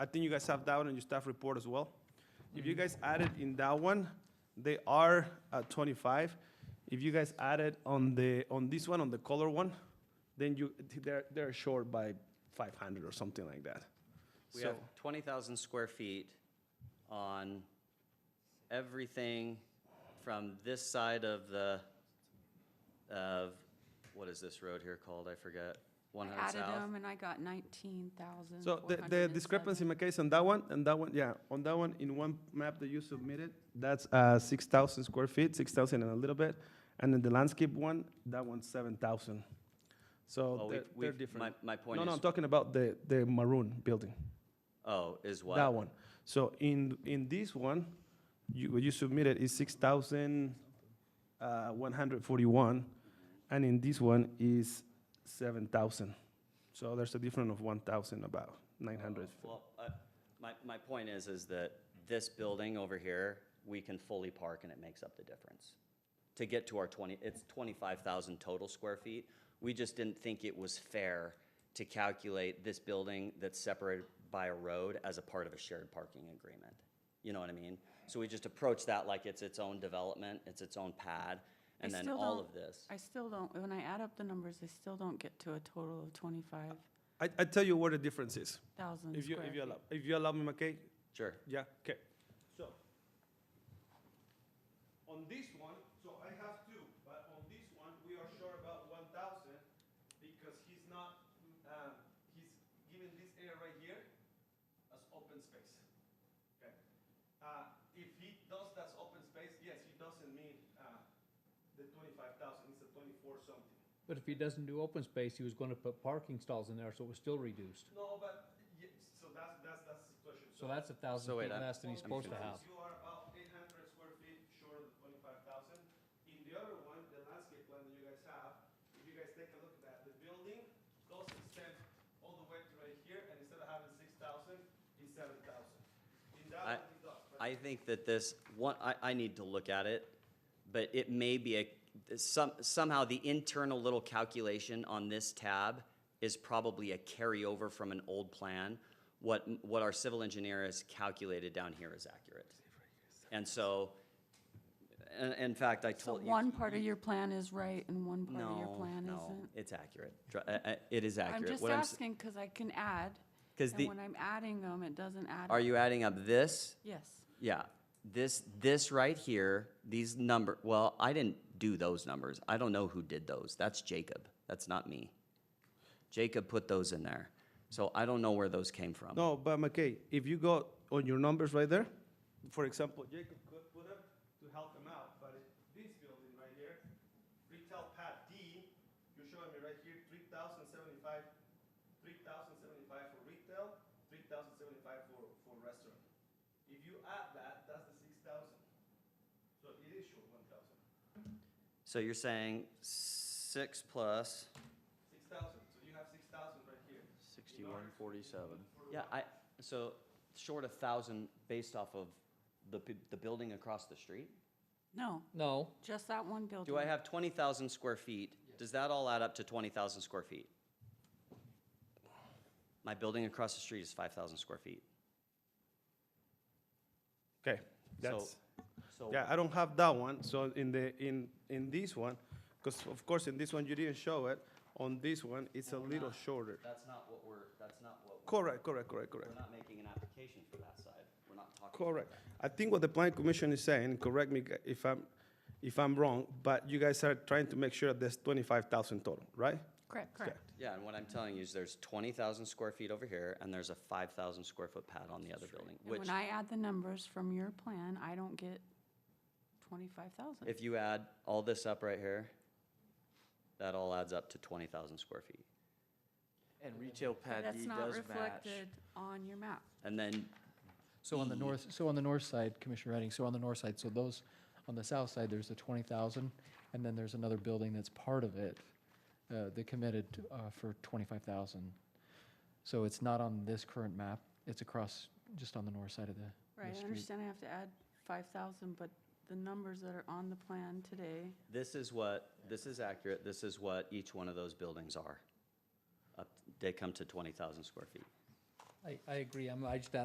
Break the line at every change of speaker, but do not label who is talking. I think you guys have that one in your staff report as well. If
Mm-hmm.
you guys added in that one, they are at twenty-five. If you guys added on the, on this one, on the color one, then you, they're, they're short by five hundred or something like that.
We
So,
have twenty thousand square feet on everything from this side of the, of, what is this road here called? I forget. One
I
hundred
added
south.
them and I got nineteen thousand.
so the, the discrepancy in my case on that one, and that one, yeah, on that one, in one map that you submitted, that's, uh, six thousand square feet, six thousand and a little bit. And then the landscape one, that one's seven thousand.
Well,
So
Oh, we-
Oh, they're, they're
we've-
different.
My, my point
No, no, I'm
is,
talking about the, the maroon building,
oh, is what?
that one. So in, in this one, you, what you submitted is six thousand, uh, one hundred forty-one, and in this one is seven thousand. So there's a difference of one thousand, about nine hundred.
Well, uh, my, my point is, is that this building over here, we can fully park and it makes up the difference. To get to our twenty, it's twenty-five thousand total square feet. We just didn't think it was fair to calculate this building that's separated by a road as a part of a shared parking agreement. You know what I mean? So we just approached that like it's its own development, it's its own pad,
I
and then
still
all
don't-
of this.
I still don't, when I add up the numbers, I still don't get to a total of twenty-five
I, I tell you what the difference is,
thousand
if you,
square
if you
feet.
allow, if you allow me, McKay,
Sure.
Yeah, okay. So, on this one, so I have two, but on this one, we are sure about one thousand because he's not, um, he's given this area right here as open space. Okay? Uh, if he does that open space, yes, he doesn't mean, uh, the twenty-five thousand, it's a twenty-four something.
But if he doesn't do open space, he was gonna put parking stalls in there, so it was still reduced.
No, but, yes, so that's, that's, that's the situation.
So that's a
So
thousand
wait,
feet
I'm-
less than he's
Well,
supposed to
because
have.
You are about eight hundred square feet short of the twenty-five thousand. In the other one, the landscape plan that you guys have, if you guys take a look at that, the building goes extend all the way to right here, and instead of having six thousand, it's seven thousand. In that one,
I-
it does, but
I think that this, one, I, I need to look at it, but it may be a, some, somehow the internal little calculation on this tab is probably a carryover from an old plan. What, what our civil engineer has calculated down here is accurate. And so, in, in fact, I
So
told you.
one part of your plan is right and one part of your
No,
plan
no,
isn't?
it's accurate. Dr- uh, uh, It is accurate.
I'm just
What s-
asking because I can add,
'cause
and
the,
when I'm adding them, it doesn't add.
are
up.
you adding up this?
Yes.
Yeah, this, this right here, these number, well, I didn't do those numbers. I don't know who did those. That's Jacob. That's not me. Jacob put those in there. So I don't know where those came from.
No, but McKay, if you go on your numbers right there, for example, Jacob could put up to help him out, but it- this building right here, retail pad D, you're showing me right here, three thousand seventy-five, three thousand seventy-five for retail, three thousand seventy-five for, for restaurant. If you add that, that's the six thousand. So it is short one thousand.
So you're saying six plus?
Six thousand. so you have six thousand right here.
Sixty-one forty-seven.
Yeah, I, so short a thousand based off of the, p- the building across the street?
No,
No,
just that one building.
Do I have twenty thousand square feet? Does that all add up to twenty thousand square feet? My building across the street is five thousand square feet.
Okay,
that's- So
Yeah, I don't have that one, so in the, in, in this one, because of course, in this one, you didn't show it, on this one, it's a little shorter.
That's not what we're, that's not what, we're-
Correct, correct, correct, correct,
we're not making an application for that side. We're not talking. about
correct.
that.
I think what the planning commission is saying, correct me g- if I'm, if I'm wrong, but you guys are trying to make sure that there's twenty-five thousand total, right?
Correct, correct.
Yeah, and what I'm telling you is there's twenty thousand square feet over here, and there's a five thousand square foot pad on the other building,
And
which,
when I add the numbers from your plan, I don't get twenty-five thousand.
if you add all this up right here, that all adds up to twenty thousand square feet.
And retail pad
That's
D
not
does match.
reflected on your map.
And then
So on the north, so on the north side, Commissioner Redding, so on the north side, so those, on the south side, there's the twenty thousand, and then there's another building that's part of it, uh, that committed, uh, for twenty-five thousand. So it's not on this current map, it's across, just on the north side of the,
Right,
the
I
street.
understand I have to add five thousand, but the numbers that are on the plan today,
This is what, this is accurate, this is what each one of those buildings are. Up- They come to 20,000 square feet.
I, I agree, I'm, I just